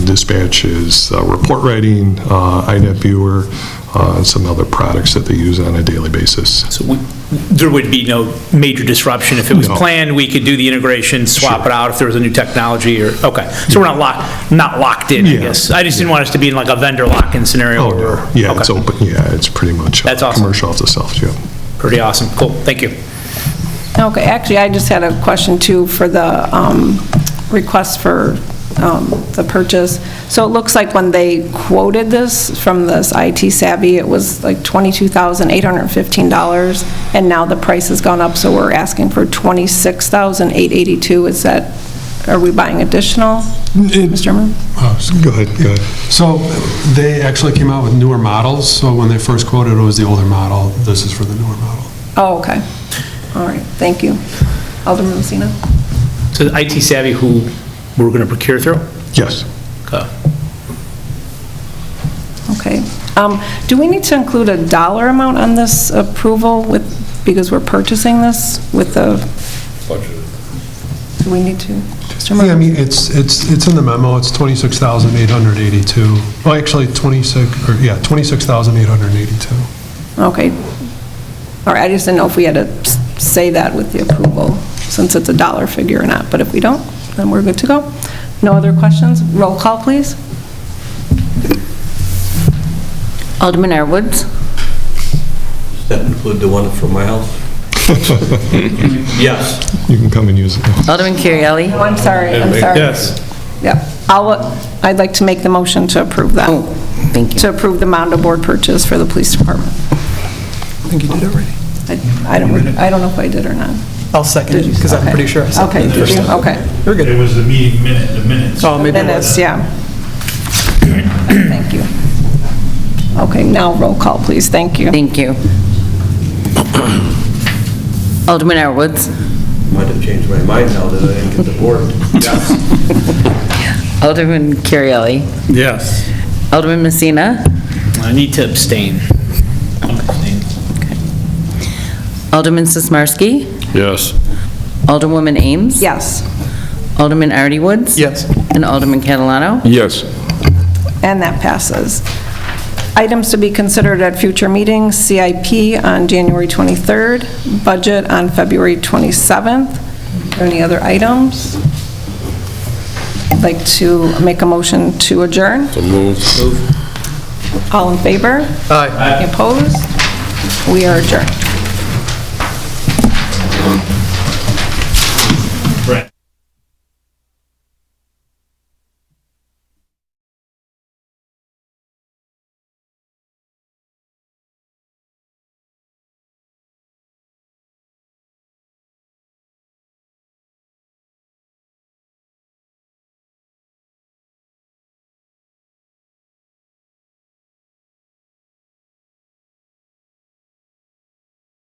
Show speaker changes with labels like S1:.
S1: dispatch is uh, report writing, uh, INET viewer, uh, and some other products that they use on a daily basis.
S2: So we- there would be no major disruption. If it was
S1: No.
S2: planned, we could do the integration, swap it out if there was a new technology or, okay. So we're not locked, not locked in, I
S1: Yeah.
S2: guess. I just didn't want us to be in like a vendor lock-in scenario.
S1: Oh,
S2: where-
S1: no. Yeah, it's
S2: Okay.
S1: open, yeah, it's pretty much. uh,
S2: That's awesome.
S1: Commercial off the shelf, yeah.
S2: Pretty awesome. Cool, thank you.
S3: Okay, actually, I just had a question too for the um, request for um, the purchase. So it looks like when they quoted this from this IT savvy, it was like $22,815, and now the price has gone up, so we're asking for $26,882. Is that, are we buying additional, Mr. Chairman?
S4: Oh, so-
S1: Go ahead, go ahead.
S4: So they actually came out with newer models, so when they first quoted, it was the older model. This is for the newer model.
S3: Oh, okay. All right, thank you. Alderman Messina?
S2: So the IT Savvy, who we're going to procure through?
S1: Yes.
S2: Okay.
S3: Okay. Um, Do we need to include a dollar amount on this approval with, because we're purchasing this with the? Do we need to? Mr. Murphy?
S4: Yeah, I mean, it's, it's, it's in the memo, it's 26,882. Well, actually, 26, or, yeah, 26,882.
S3: Okay. All right, I just didn't know if we had to s- say that with the approval, since it's a dollar figure or not, but if we don't, then we're good to go. No other questions? Roll call, please.
S5: Alderman Edwards.
S6: Does that include the one from my house? Yes.
S1: You can come and use it.
S5: Alderman Currielli.
S3: Oh, I'm sorry, I'm sorry. Yes. Yep. I'll, uh, I'd like to make the motion to approve that.
S5: Oh, thank you.
S3: To approve the Mondo Board purchase for the police department.
S7: I think you did already.
S3: I I don't, I don't know if I did or not.
S7: I'll second it,
S3: Did you-
S7: because I'm
S3: okay.
S7: pretty sure I
S3: Okay,
S7: seconded it.
S3: did you? Okay.
S7: You're
S8: It
S7: good.
S8: was the meeting minute, the minutes.
S7: Oh, maybe it
S3: Minutes,
S7: was.
S3: yeah. Thank you. Okay, now roll call, please, thank you.
S5: Thank you. Alderman Edwards.
S6: Might have changed my mind now that I didn't get the board. Yes.
S5: Alderman Currielli.
S6: Yes.
S5: Alderman Messina.
S2: I need to abstain. Abstain.
S5: Alderman Sismarski.
S9: Yes.
S5: Alderwoman Ames.
S3: Yes,
S5: Alderman Artie Woods.
S7: Yes.
S5: And Alderman Catalano.
S9: Yes.
S3: and that passes. Items to be considered at future meetings, CIP on January 23rd, budget on February 27th. Are there Any other items? I'd like to make a motion to adjourn.
S9: So moved.
S3: All in favor?
S7: Aye.
S3: Opposed? We are adjourned.